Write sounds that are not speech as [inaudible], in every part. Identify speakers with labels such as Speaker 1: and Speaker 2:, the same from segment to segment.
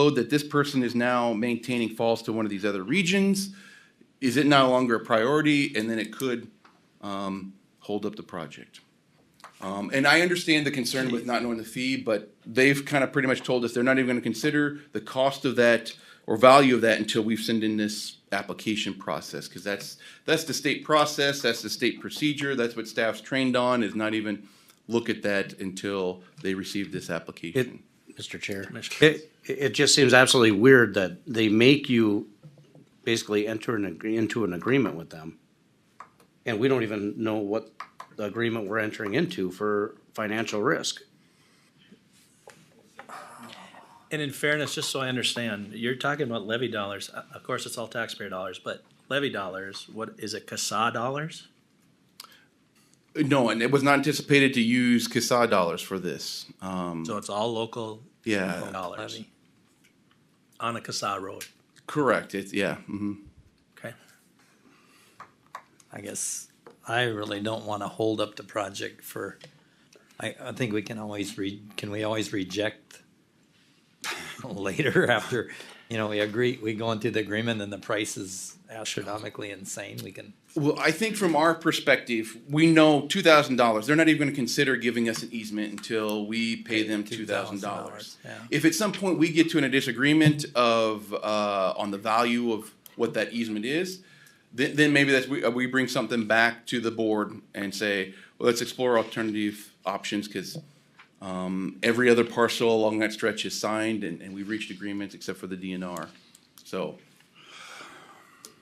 Speaker 1: load that this person is now maintaining falls to one of these other regions? Is it no longer a priority? And then it could, um, hold up the project. Um, and I understand the concern with not knowing the fee, but they've kind of pretty much told us they're not even gonna consider the cost of that or value of that until we've sent in this application process, cause that's, that's the state process, that's the state procedure, that's what staff's trained on, is not even look at that until they receive this application.
Speaker 2: Mr. Chair. It, it just seems absolutely weird that they make you basically enter an, agree- into an agreement with them. And we don't even know what the agreement we're entering into for financial risk.
Speaker 3: And in fairness, just so I understand, you're talking about levy dollars. Uh, Of course, it's all taxpayer dollars, but levy dollars, what, is it CASA dollars?
Speaker 1: No, and it was not anticipated to use CASA dollars for this. Um,
Speaker 3: So it's all local
Speaker 1: Yeah.
Speaker 3: dollars. On a CASA road,
Speaker 1: correct. It's yeah. hmm
Speaker 3: okay?
Speaker 4: I guess I really don't want to hold up the project for, I, I think we can always re, can we always reject [laughs] later [laughs] after, you know, we agree, we go into the agreement and the price is astronomically insane, we can,
Speaker 1: Well, I think from our perspective, we know two thousand dollars. They're not even going to consider giving us an easement until we pay them two thousand dollars.
Speaker 4: $2,000, yeah.
Speaker 1: If at some point we get to an disagreement of uh, on the value of what that easement is, then, then maybe that's we, uh, we bring something back to the board and say, well, let's explore alternative options because um, every other parcel along that stretch is signed and, and we've reached agreements except for the DNR. So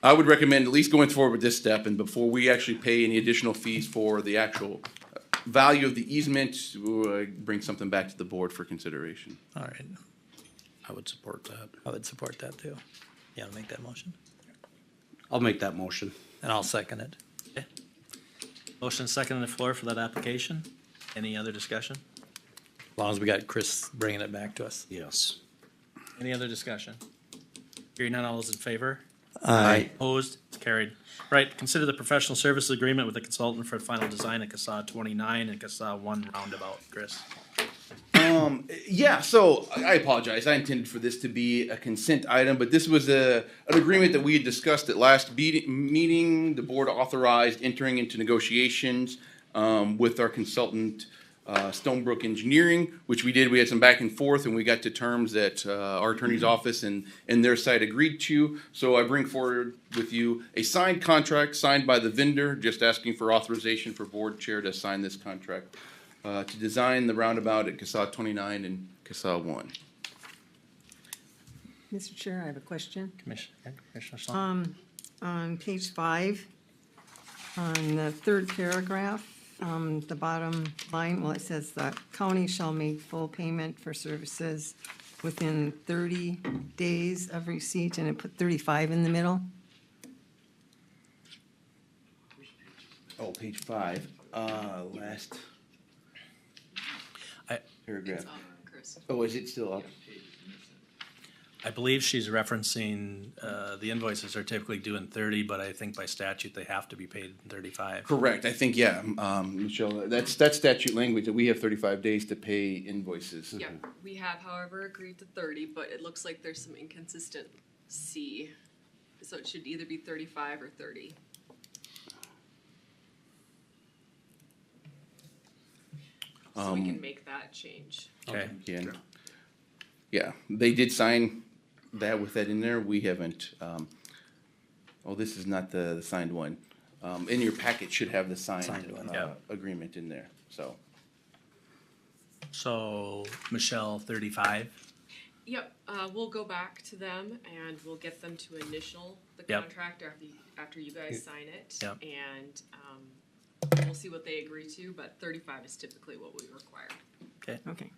Speaker 1: I would recommend at least going forward with this step and before we actually pay any additional fees for the actual uh, value of the easement, we'll, uh, bring something back to the board for consideration.
Speaker 4: all right,
Speaker 2: I would support that.
Speaker 4: I would support that too. You want to make that motion?
Speaker 2: I'll make that motion.
Speaker 4: And I'll second it.
Speaker 3: Motion second on the floor for that application. Any other discussion?
Speaker 4: As long as we got Chris bringing it back to us.
Speaker 2: Yes.
Speaker 3: Any other discussion? Hearing none, all those in favor?
Speaker 4: Aye.
Speaker 3: Opposed, It's carried. Right, consider the professional services agreement with the consultant for final design at CASA twenty-nine and CASA one roundabout, Chris.
Speaker 1: Yeah, so I I apologize. I intended for this to be a consent item, but this was a, an agreement that we had discussed at last be- meeting. The board authorized entering into negotiations um, with our consultant, uh, Stonebrook Engineering, which we did. We had some back and forth, and we got to terms that uh, our attorney's office and, and their side agreed to. So I bring forward with you a signed contract signed by the vendor, just asking for authorization for board chair to sign this contract uh, to design the roundabout at CASA 29 and CASA 1.
Speaker 5: Mr. Chair, I have a question. Um,
Speaker 3: Commissioner, Commissioner Schlangen?
Speaker 5: On page five, on the third paragraph, um, the bottom line, well, it says the county shall make full payment for services within thirty days of receipt, and it put thirty-five in the middle.
Speaker 1: Oh, page five, uh, last.
Speaker 3: I-
Speaker 1: Paragraph. Oh, is it still up?
Speaker 3: I believe she's referencing, uh, the invoices are typically due in thirty, but I think by statute they have to be paid in thirty-five.
Speaker 1: Correct, I think, yeah, um, Michelle, that's, that's statute language, that we have thirty-five days to pay invoices.
Speaker 6: Yeah, we have however agreed to thirty, but it looks like there's some inconsistency. So it should either be thirty-five or thirty. So we
Speaker 3: Um,
Speaker 6: can make that change.
Speaker 3: Okay,
Speaker 1: Again. Yeah, they did sign that with that in there, we haven't, um, oh, this is not the, the signed one. Um, in your packet should have the signed,
Speaker 4: Signed one.
Speaker 1: uh,
Speaker 3: Yeah.
Speaker 1: agreement in there, so.
Speaker 3: so Michelle, thirty-five,
Speaker 6: Yep, uh, we'll go back to them and we'll get them to initial the
Speaker 3: Yep.
Speaker 6: contract after you, after you guys sign it.
Speaker 3: Yep.
Speaker 6: And, um, we'll see what they agree to, but thirty-five is typically what we require.
Speaker 5: Okay.
Speaker 3: okay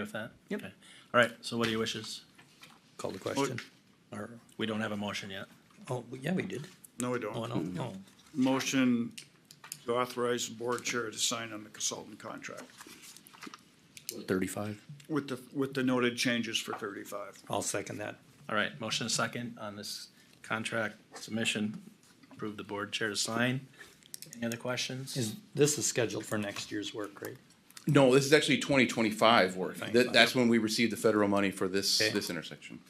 Speaker 3: with that?
Speaker 5: Yep.
Speaker 3: Okay. All right, so what are your wishes?
Speaker 4: Call the question. Or,
Speaker 3: We don't have a motion yet.
Speaker 4: oh, yeah, we did.
Speaker 7: No, we
Speaker 4: Oh,
Speaker 7: don't.
Speaker 4: no,
Speaker 2: Mm-hmm.
Speaker 4: no.
Speaker 7: Motion to authorize the board chair to sign on the consultant contract
Speaker 2: Thirty-five.
Speaker 7: with the, with the noted changes for thirty-five.
Speaker 4: I'll second that.
Speaker 3: All right, motion second on this contract submission. Approve the board chair to sign. Any other questions?
Speaker 4: Is, this is scheduled for next year's work, right?
Speaker 1: No, this is actually twenty twenty-five work. That,
Speaker 4: 2025.
Speaker 1: that's when we received the federal money for this,
Speaker 4: Okay.
Speaker 1: this intersection.